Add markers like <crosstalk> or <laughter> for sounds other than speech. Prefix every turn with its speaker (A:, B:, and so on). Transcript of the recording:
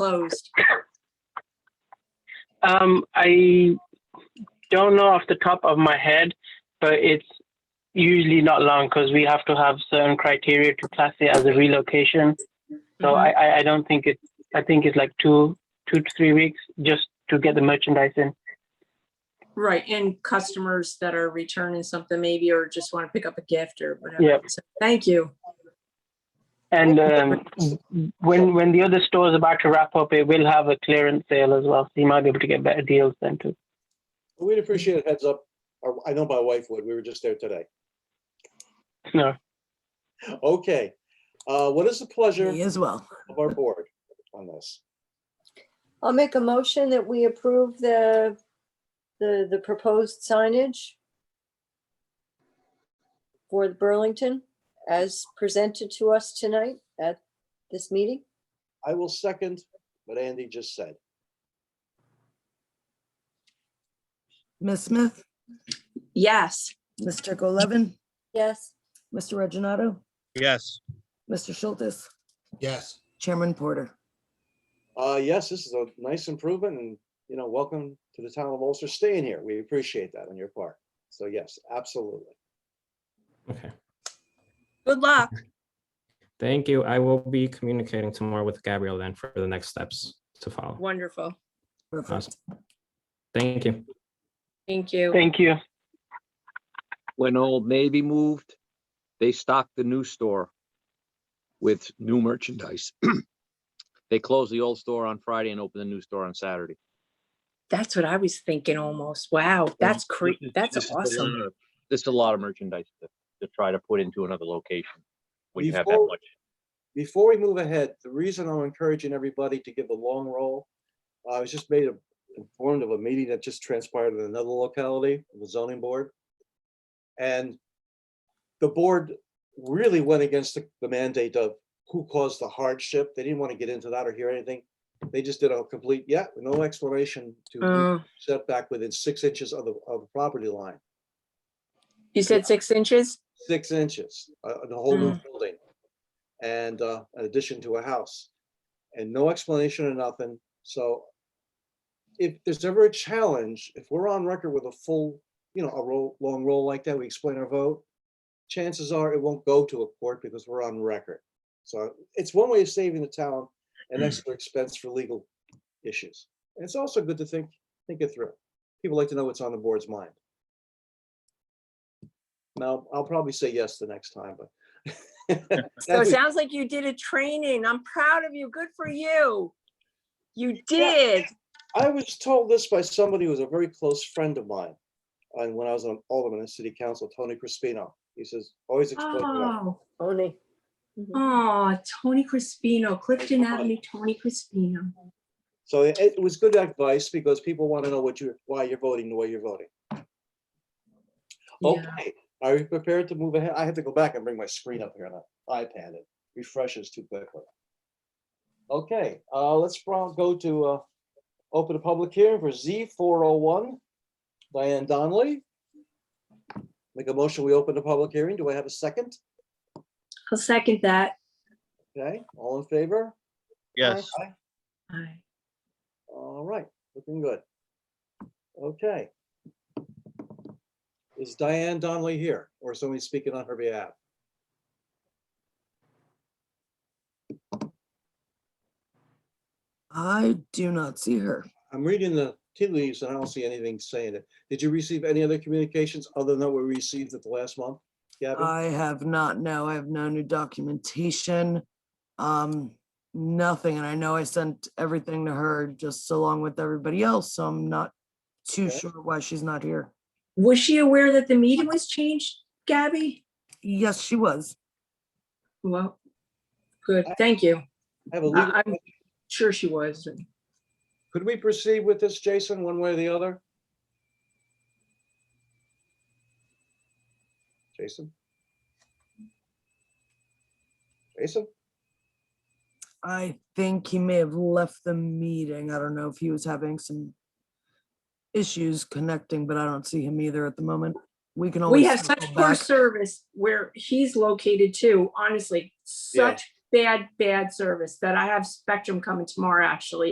A: closed.
B: Um, I don't know off the top of my head, but it's usually not long because we have to have certain criteria to class it as a relocation. So I, I, I don't think it's, I think it's like two, two to three weeks just to get the merchandise in.
A: Right, and customers that are returning something maybe, or just want to pick up a gift or whatever.
B: Yep.
A: So, Thank you.
B: And um, when when the other store is about to wrap up, it will have a clearance sale as well. So you might be able to get better deals then too.
C: We'd appreciate a heads up. or I know my wife would. We were just there today.
B: No.
C: Okay. Uh, What is the pleasure
D: Me as well.
C: of our board on this?
E: I'll make a motion that we approve the, the, the proposed signage for Burlington as presented to us tonight at this meeting.
C: I will second what Andy just said.
D: Ms. Smith,
A: Yes,
D: Mr. Golevin,
E: Yes,
D: Mr. Reggino,
F: Yes.
D: Mr. Schultz,
F: Yes.
D: Chairman Porter.
C: Uh, Yes, this is a nice improvement and, you know, welcome to the town of Ulster. Staying here. We appreciate that on your part. So yes, absolutely.
G: Okay,
A: good luck.
G: thank you. I will be communicating tomorrow with Gabrielle then for the next steps to follow.
A: Wonderful.
D: Perfect.
G: Thank you.
A: Thank you.
B: Thank you.
H: when Old Navy moved, they stocked the new store with new merchandise. <clears throat> They closed the old store on Friday and opened the new store on Saturday.
A: That's what I was thinking almost. Wow, that's cre,
H: This is-
A: that's
H: this is a
A: awesome.
H: lot of- This is a lot of merchandise to, to try to put into another location when you have that
C: Before-
H: much.
C: Before we move ahead, the reason I'm encouraging everybody to give a long roll, uh, I was just made informed of a meeting that just transpired in another locality, the zoning board. And the board really went against the the mandate of who caused the hardship. They didn't want to get into that or hear anything. They just did a complete, yeah, no explanation to
A: Uh,
C: setback within six inches of the, of the property line,
A: You said six inches?
C: six inches, uh, the whole new building. And, uh, an addition to a house. And no explanation or nothing. So if there's ever a challenge, if we're on record with a full, you know, a roll, long roll like that, we explain our vote, chances are it won't go to a court because we're on record. So it's one way of saving the town an extra expense for legal issues. And it's also good to think, think it through. People like to know what's on the board's mind. Now, I'll probably say yes the next time, but. <laughs>
A: So it
C: That's-
A: sounds like you did a training. I'm proud of you. Good for you. You did.
C: I was told this by somebody who was a very close friend of mine. And when I was an alderman in city council, Tony Crispino, he says, always explain. it out."
A: Oh,
E: Tony. Mhm.
A: oh, Tony Crispino, Clifton Avenue, Tony Crispino.
C: So it, it was good advice because people want to know what you, why you're voting the way you're voting.
H: Oh.
A: Yeah.
C: Okay, are you prepared to move ahead? I have to go back and bring my screen up here on an iPad. It refreshes too quickly. Okay, uh, let's pro- go to, uh, open a public hearing for Z four oh one. Diane Donnelly. Make a motion, we open the public hearing. Do I have a second?
A: I'll second that.
C: Okay, all in favor?
F: Yes.
C: Aye. All right, looking good. Okay. Is Diane Donnelly here or somebody speaking on her behalf?
D: I do not see her.
C: I'm reading the tea leaves and I don't see anything saying it. Did you receive any other communications other than what we received at the last month? Gabby?
A: Uh,
D: I have not, no, I have no new documentation. Um, nothing. And I know I sent everything to her just along with everybody else, so I'm not too
C: Okay.
D: sure why she's not here.
A: Was she aware that the meeting was changed, Gabby?
D: Yes, she was.
A: Well, good, thank you.
C: I have a legal
A: I- I'm
C: question.
A: sure she was.
C: Could we proceed with this, Jason, one way or the other? Jason? Jason?
D: I think he may have left the meeting. I don't know if he was having some issues connecting, but I don't see him either at the moment. We can always.
A: We have such
D: circle
A: poor
D: back.
A: service where he's located too, honestly,
C: Yeah.
A: such bad, bad service that I have Spectrum coming tomorrow, actually.